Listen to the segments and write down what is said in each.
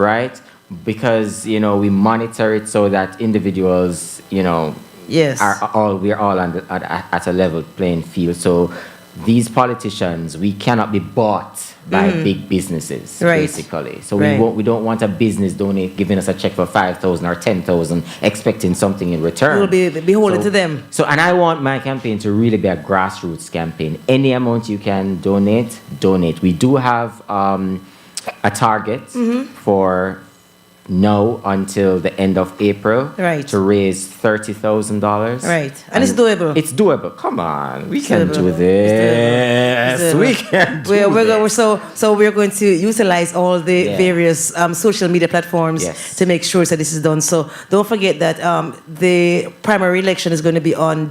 right? Because you know we monitor it so that individuals, you know, Yes. are all we're all on the, at, at a level playing field. So these politicians, we cannot be bought by big businesses, Mm. Right. basically. So Right. we won't, we don't want a business donate giving us a check for five thousand or ten thousand, expecting something in return. We'll be beholden to them. So, and I want my campaign to really be a grassroots campaign. Any amount you can donate, donate. We do have um, a target Mm-hmm. for now until the end of April Right. to raise thirty thousand dollars. Right. And it's doable. It's doable. Come on, we can doable. do It's this. doable. We So, can. Do we're, we're this. going, so so we're going to utilize all the Yeah. various um, social media platforms Yes. to make sure that this is done. So don't forget that um, the primary election is going to be on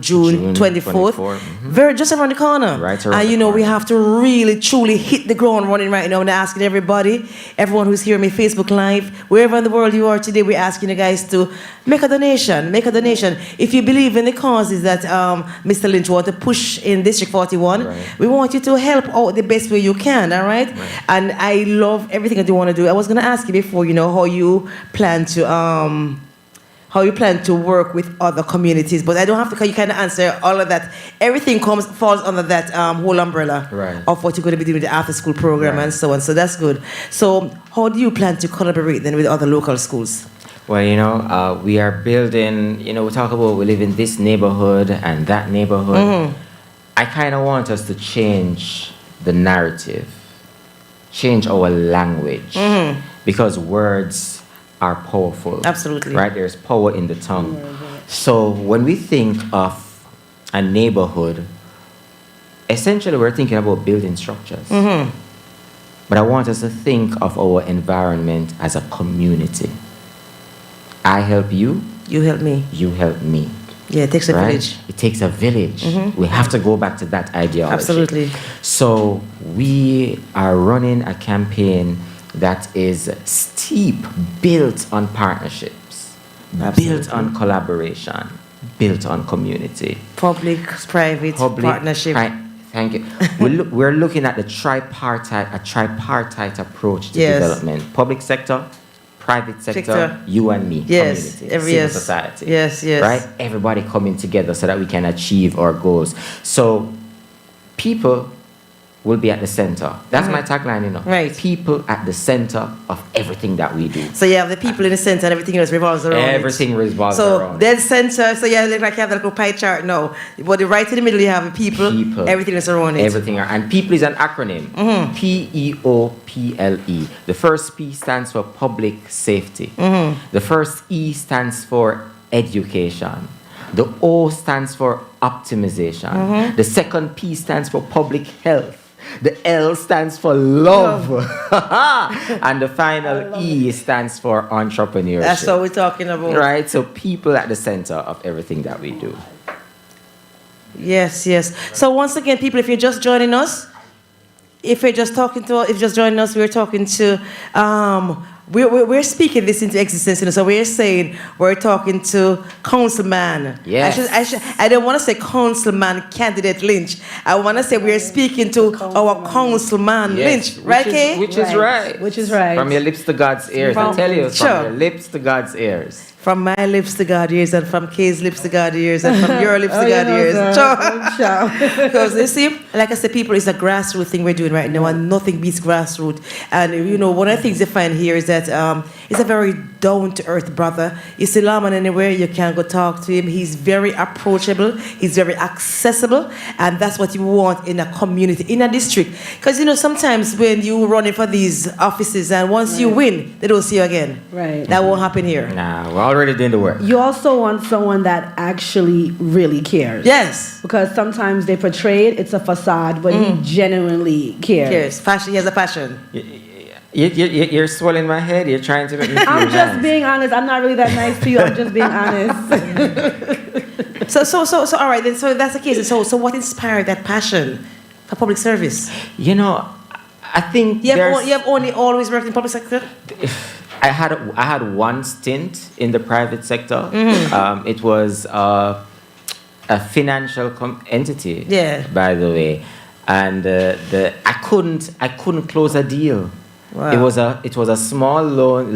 June June, 24th, 24th, very just around the corner. Right around and the you know we corner. have to really truly hit the ground running right now. And asking everybody, everyone who's here on my Facebook Live, wherever in the world you are today, we're asking you guys to make a donation. Make a donation if you believe in the causes that um, Mr. Lynch wants to push in District 41. Right. We want you to help out the best way you can, all right? And I love everything that you want to do. I was going to ask you before, you know, how you plan to um how you plan to work with other communities, but I don't have to. You can answer all of that. Everything comes falls under that um, whole umbrella Right. of what you're going to be doing with the after school program and so on. So that's good. So how do you plan to collaborate then with other local schools? Well, you know, uh, we are building, you know, we talk about we live in this neighborhood and that neighborhood. I kind of want us to change the narrative, change our language, because words are powerful. Absolutely. Right? There's power in the tongue. So when we think of a neighborhood, essentially we're thinking about building structures. But I want us to think of our environment as a community. I help you, You help me. you help me. Yeah, it takes a right? village. Mm-hmm. It takes a village. We have to go back to that ideology. Absolutely. So we are running a campaign that is steep, built on partnerships, built on collaboration, built on community. Public, private, partnership. Tri- thank you. We're, loo- we're looking at the tripartite, a tripartite approach to Yes. development: public sector, private sector, Sector. you and me, Yes, community, every- civil yes. society. Yes, yes. Right, everybody coming together so that we can achieve our goals. So, people will be at the center. That's my tagline, you know. Mm. Right. People at the center of everything that we do. So you have the people in the center and everything else revolves around it. Everything revolves so around. it. dead center. So yeah, look like you have that little pie chart. No, but the right in the middle you have the people. People. Everything that's around it. Mm-hmm. Everything. are- And people is an acronym. P E O P L E. The first P stands for public safety. Mm-hmm. The first E stands for education. The O stands for optimization. Mm-hmm. The second P stands for public health. The L stands for love. and the final E stands for entrepreneurship. That's what we're talking about. Right? So people at the center of everything that we do. Yes, yes. So once again, people, if you're just joining us, if you're just talking to, if you're just joining us, we're talking to, um, we're, we're, we're speaking this into existence. You know, so we're saying we're talking to councilman. Yes. I, should, I, should, I don't want to say councilman candidate Lynch. I want to say we're speaking to our councilman Yes, Lynch, right, which Kay? is, which is right. Which is right. From your lips to God's ears. I From- tell you, Sure. from your lips to God's ears. from my lips to God's ears, and from Kay's lips to God's ears, and from your lips Oh, to you God's know, ears. sir. Sure. Good job. Because you see, like I said, people, it's a grassroots thing we're doing right now, and nothing beats grassroots. And you know, one of the things they find here is that um, it's a very down to earth brother. You see, Laman anywhere, you can go talk to him. He's very approachable, he's very accessible, and that's what you want in a community, in a district. Because you know, sometimes when you're running for these offices, and once you win, they don't see you again. Right. That won't happen here. Nah, we're already doing the work. You also want someone that actually really cares. Yes. Because sometimes they portray it, it's a facade, but he genuinely cares. Yes, fashion. He has a passion. You, you, you, you're swelling my head. You're trying to make me feel I'm nice. just being honest. I'm not really that nice to you. I'm just being honest. So, so, so, so. All right, then. So that's the case. So, so, what inspired that passion for public service? You know, I think You have, there's, o- you have only always worked in public sector. I had I had one stint in the private sector. Um, it was uh, a financial com- entity. Yeah. By the way, and uh, the I couldn't I couldn't close a deal. Wow. It was a it was a small loan